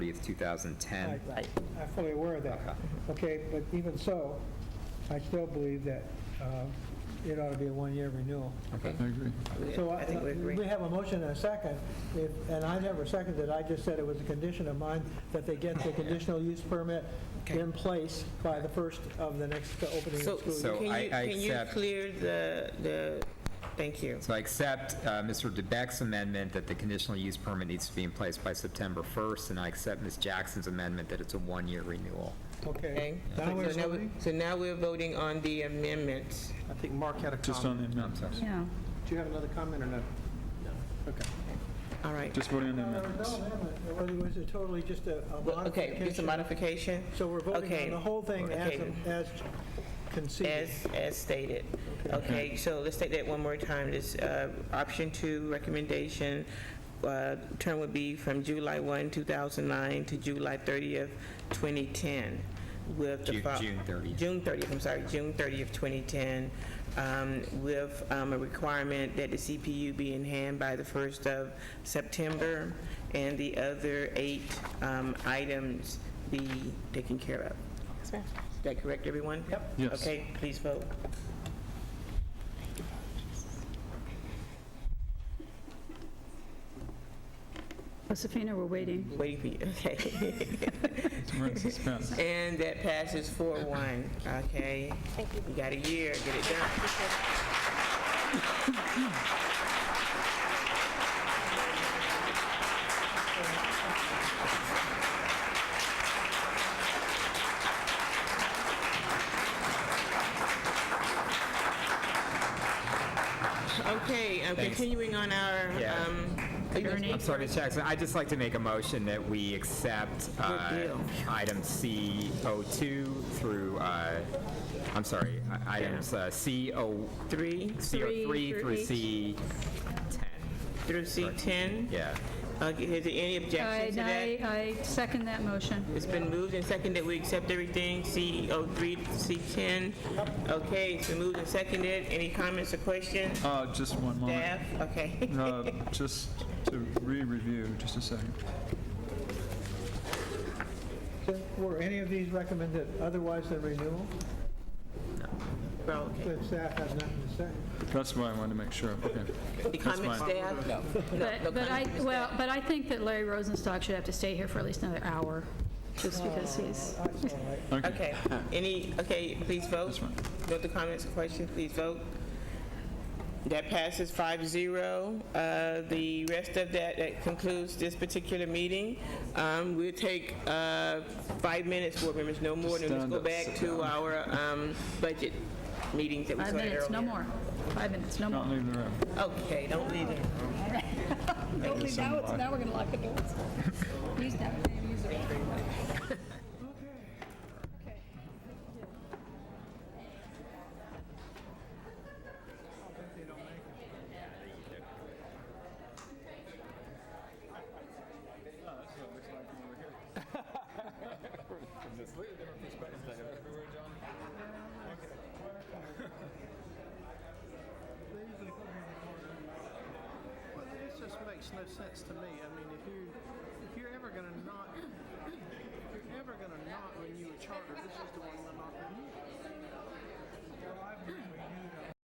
30th, 2010. Right. Right. I'm fully aware of that. Okay, but even so, I still believe that uh, it ought to be a one-year renewal. Okay. I agree. So uh, I think we agree. We have a motion and a second, If- and I never seconded, I just said it was a condition of mine that they get the conditional use permit Okay. in place by the first of the next opening So of school. So can you, I- I can you accept- clear the, the, thank you. So I accept uh, Mr. DeBeck's amendment that the conditional use permit needs to be in place by September 1st, and I accept Ms. Jackson's amendment that it's a one-year renewal. Okay. Okay? Now we're So now we- voting? So now we're voting on the amendments. I think Mark had a Just on comment. the amendment. Yeah. Do you have another comment or no? All right. Just voting on the No, no, amendments. no, no, it was totally just a a Well, Okay, just a modification. modification So we're voting Okay. on the whole thing as Okay. as conceded. as, as stated. Okay, so let's take that one more time. This, uh, option two recommendation, uh, term would be from July 1, 2009 to July 30th, 2010 with the. Ju- fol- June 30th. June 30th, I'm sorry, June 30th, 2010, um, with um, a requirement that the CPU be in hand by the 1st of September, and the other eight um, items be taken care of. Is that correct, everyone? Yep. Yes. Okay, please vote. Josefina, we're waiting. Waiting for you, okay. We're in suspense. And that passes 4-1, okay? Thank you. You got a year, get it done. Okay, uh, Thanks. continuing on our, Yeah. um, I'm sorry, Ms. Jackson, I'd just like to make a motion that we accept uh, Good deal. item C02 through, uh, I'm sorry, i- items uh, C0 three CO3 through through C10. H. through C10. Yeah. Okay, is there any objection to that? I, I I second that motion. It's been moved and seconded, we accept everything, C03, C10. Okay, it's been moved and seconded, any comments or questions? Uh, Just one moment. Staff, okay. Uh, Just to re-review, just a second. Were any of these recommended otherwise than renewal? Well, okay. The staff has nothing to say. That's why I wanted to make sure. Okay. Any comments, fine. staff? No. no But, but I, comments from well, staff. but I think that Larry Rosenstock should have to stay here for at least another hour, just because he's, Oh, Okay. Okay, any, okay, please vote. This one. Vote the comments or questions, please vote. That passes 5-0. Uh, The rest of that, that concludes this particular meeting. Um, We'll take uh, five minutes, board members, no more, and let's Stand go up, back sit to down. our um, budget meetings that we five started earlier. minutes, no more. Five minutes, no more. Don't leave the room. Okay, don't leave it. There's some lock. Now we're gonna lock the doors. Use that, use it. Well, this just makes no sense to me. I mean, if you, if you're ever gonna not, if you're ever gonna not renew a charter, this is the one we're not